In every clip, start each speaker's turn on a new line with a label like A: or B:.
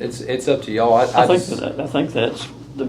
A: It's, it's up to y'all. Oh, I,
B: I
A: I
B: think
A: just,
B: that, I think that's the,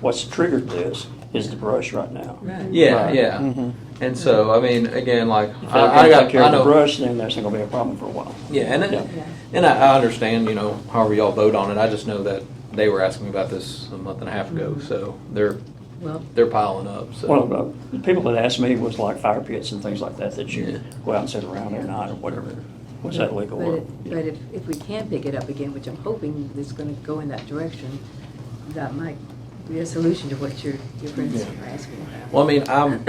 B: what's triggered this is the brush right now.
A: yeah,
C: Right.
A: yeah. And so, I mean, again, like,
B: If they're
A: I, I
B: gonna take
A: got,
B: care
A: I
B: of the
A: know.
B: brush, then that's not gonna be a problem for a while.
A: Yeah, and
B: Yeah.
A: it, and I, I understand, you know, however y'all vote on it. I just know that they were asking me about this a month and a half ago, so they're,
C: Well,
A: they're piling up, so.
B: Mm-hmm. Well, uh, the people that asked me was like fire pits and things like that, that
A: Yeah.
B: you go out and sit around at night or whatever. Was that
C: but
B: legal? or-
C: if- but if, if we can pick it up again, which I'm hoping is gonna go in that direction, that might be a solution to what your, your friends are asking about.
A: Well, I mean, I'm,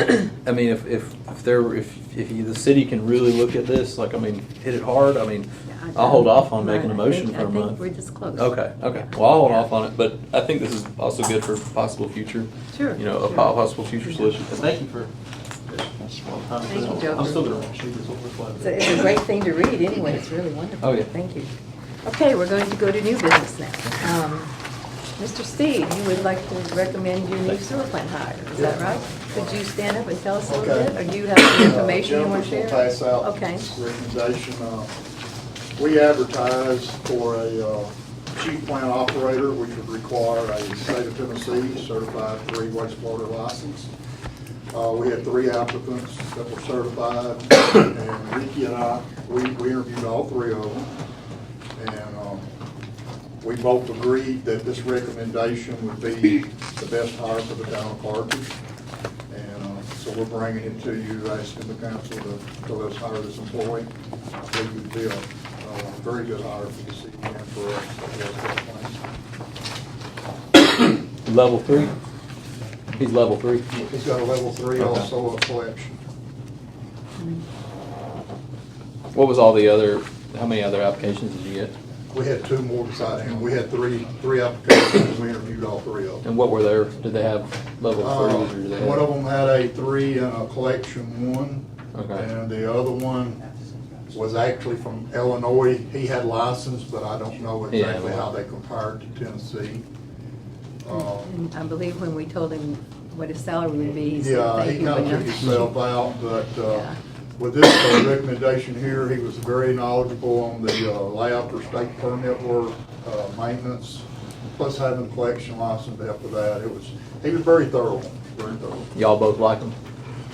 A: I mean, if, if, if there, if, if you- the city can really look at this, like, I mean, hit it hard, I mean,
C: Yeah, I-
A: I'll hold off on making a
C: Right, I
A: motion
C: think-
A: for a
C: I think we're
A: month.
C: just close.
A: Okay, okay, well, I'll hold off on it, but I think this is also good for possible future.
C: Sure,
A: You know, a
C: sure.
A: po- possible future solution.
D: And thank you for.
B: That's-
C: Thank you, Joker.
D: I'm still gonna watch you, this will reflect.
C: It's a, it's a great thing to read anyway, it's really wonderful.
A: Oh, yeah.
C: Thank you. Okay, we're going to go to new business now. Um, Mr. Steve, you would like to recommend your new sewer plant hire, is that right? Could you stand up and tell us a little
E: Okay. Uh,
C: bit, or do you have some information you
E: Jennifer
C: want to share?
E: will pass out
C: Okay,
E: this recommendation. Uh, We advertise for a uh, chief plant operator, which would require a state of Tennessee certified three wastewater license. Uh, We had three applicants that were certified, and Ricky and I, we we interviewed all three of them. And um, we both agreed that this recommendation would be the best hire for the town of Carthage. And uh, so we're bringing it to you, asking the council to, to let's hire this employee. I think would be a uh, very good hire for the city and for us.
A: Level three? He's level three.
E: He's got a level three,
A: Okay.
E: also a collection.
A: What was all the other, how many other applications did you get?
E: We had two more beside him. We had three, three applications. We interviewed all three of them.
A: And what were their, did they have level
E: Uh,
A: threes or did they have?
E: One of them had a three and a collection one.
A: Okay.
E: And the other one was actually from Illinois. He had license, but I don't know
A: Yeah,
E: exactly
A: well-
E: how they compared to Tennessee. Um,
C: And I believe when we told him what his salary would be, he said,
E: Yeah,
C: thank
E: he
C: you, but
E: kind of
C: no."
E: took himself out, but
C: Yeah.
E: uh, with this uh, recommendation here, he was very knowledgeable on the uh, layout for state permit work, uh, maintenance, plus having a collection license after that. It was, he was very thorough, very thorough.
A: Y'all both like them?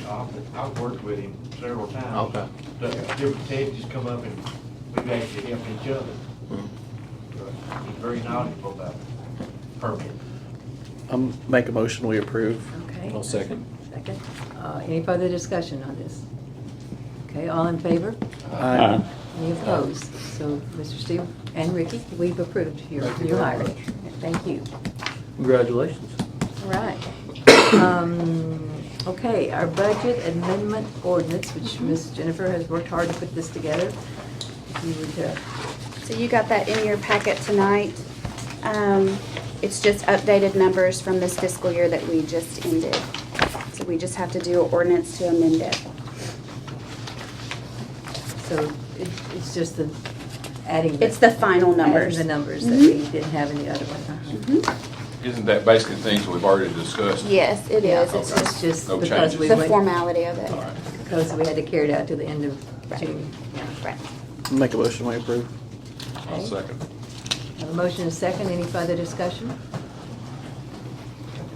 D: I've I've worked with him several times.
A: Okay.
D: But Different Ted just come up and we've actually helped each other. He's very knowledgeable about permit.
F: Um, make a motion, we approve.
C: Okay.
A: I'll second.
C: Second. Uh, Any further discussion on this? Okay, all in favor?
B: Uh,
C: Any opposed? So, Mr. Steve and Ricky, we've approved your
E: Thank you
C: your
E: very
C: hiring.
E: much.
C: Thank you.
A: Congratulations.
C: All right. Um, Okay, our budget amendment ordinance, which Ms. Jennifer has worked hard to put this together. If you would, uh,
G: So you got that in your packet tonight. Um, It's just updated numbers from this fiscal year that we just ended. So we just have to do an ordinance to amend it.
C: so it- it's just the adding.
G: It's the final numbers. Mm-hmm.
C: Adding the numbers that we didn't have in the other one.
G: Mhm.
H: Isn't that basically things we've already discussed?
G: Yes, it
C: Yeah,
G: is. It's
C: It's
G: just
C: just
H: No
C: because
H: changes.
C: we
G: the
C: went.
G: formality of it.
H: All right.
C: Because we had to carry it out to the end of
G: Right.
C: June. Yeah.
G: Right.
F: Make a motion, we approve.
H: I'll second.
C: Have a motion and a second, any further discussion?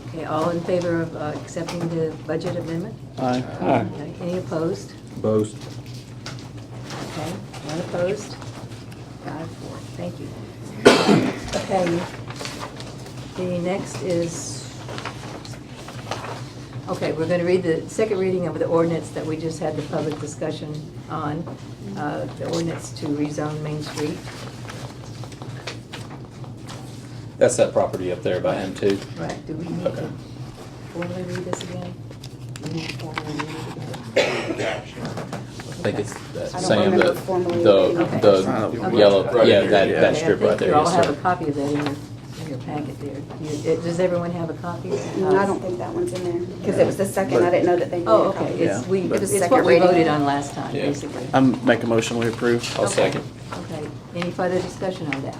C: Okay, all in favor of uh, accepting the budget amendment?
F: Aye.
B: Aye.
C: Okay, Any opposed?
A: Both.
C: Okay, none opposed? Five, four, thank you. Okay, the next is, okay, we're going to read the second reading of the ordinance that we just had the public discussion on, uh, the ordinance to rezone Main Street.
A: That's that property up there by him too.
C: Right, do we need
A: Okay.
C: to formally read this again? We need to formally read it again?
A: I think it's that
G: I don't
A: Sam, the,
G: remember formally
C: the-
G: reading it.
A: the
C: Okay.
A: yellow,
H: Right
A: yeah,
H: here,
A: that,
H: yeah.
A: that strip
C: Okay,
A: right
C: I think
A: there.
C: You all
A: yes,
C: have
A: sir.
C: a copy of that in your, in your packet there. You- it- Does everyone have a copy?
G: No, I don't think that one's in there because it was the second. I didn't know that they needed
C: Oh,
G: a
C: okay,
G: copy.
C: it's,
F: Yeah,
C: we,
F: but-
C: it's what we voted on last time,
A: Yeah.
C: basically.
F: Um, make a motion, we approve.
A: I'll
C: Okay.
A: second.
C: Okay, any further discussion on that?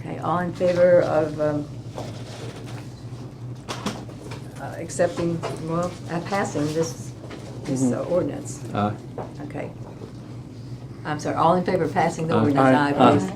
C: Okay, all in favor of um, uh, accepting, well, uh, passing this, this uh, ordinance?
A: Aye.
C: Okay. I'm sorry, all in favor of passing the
A: Aye.
C: ordinance?
F: Aye. Aye.
C: please.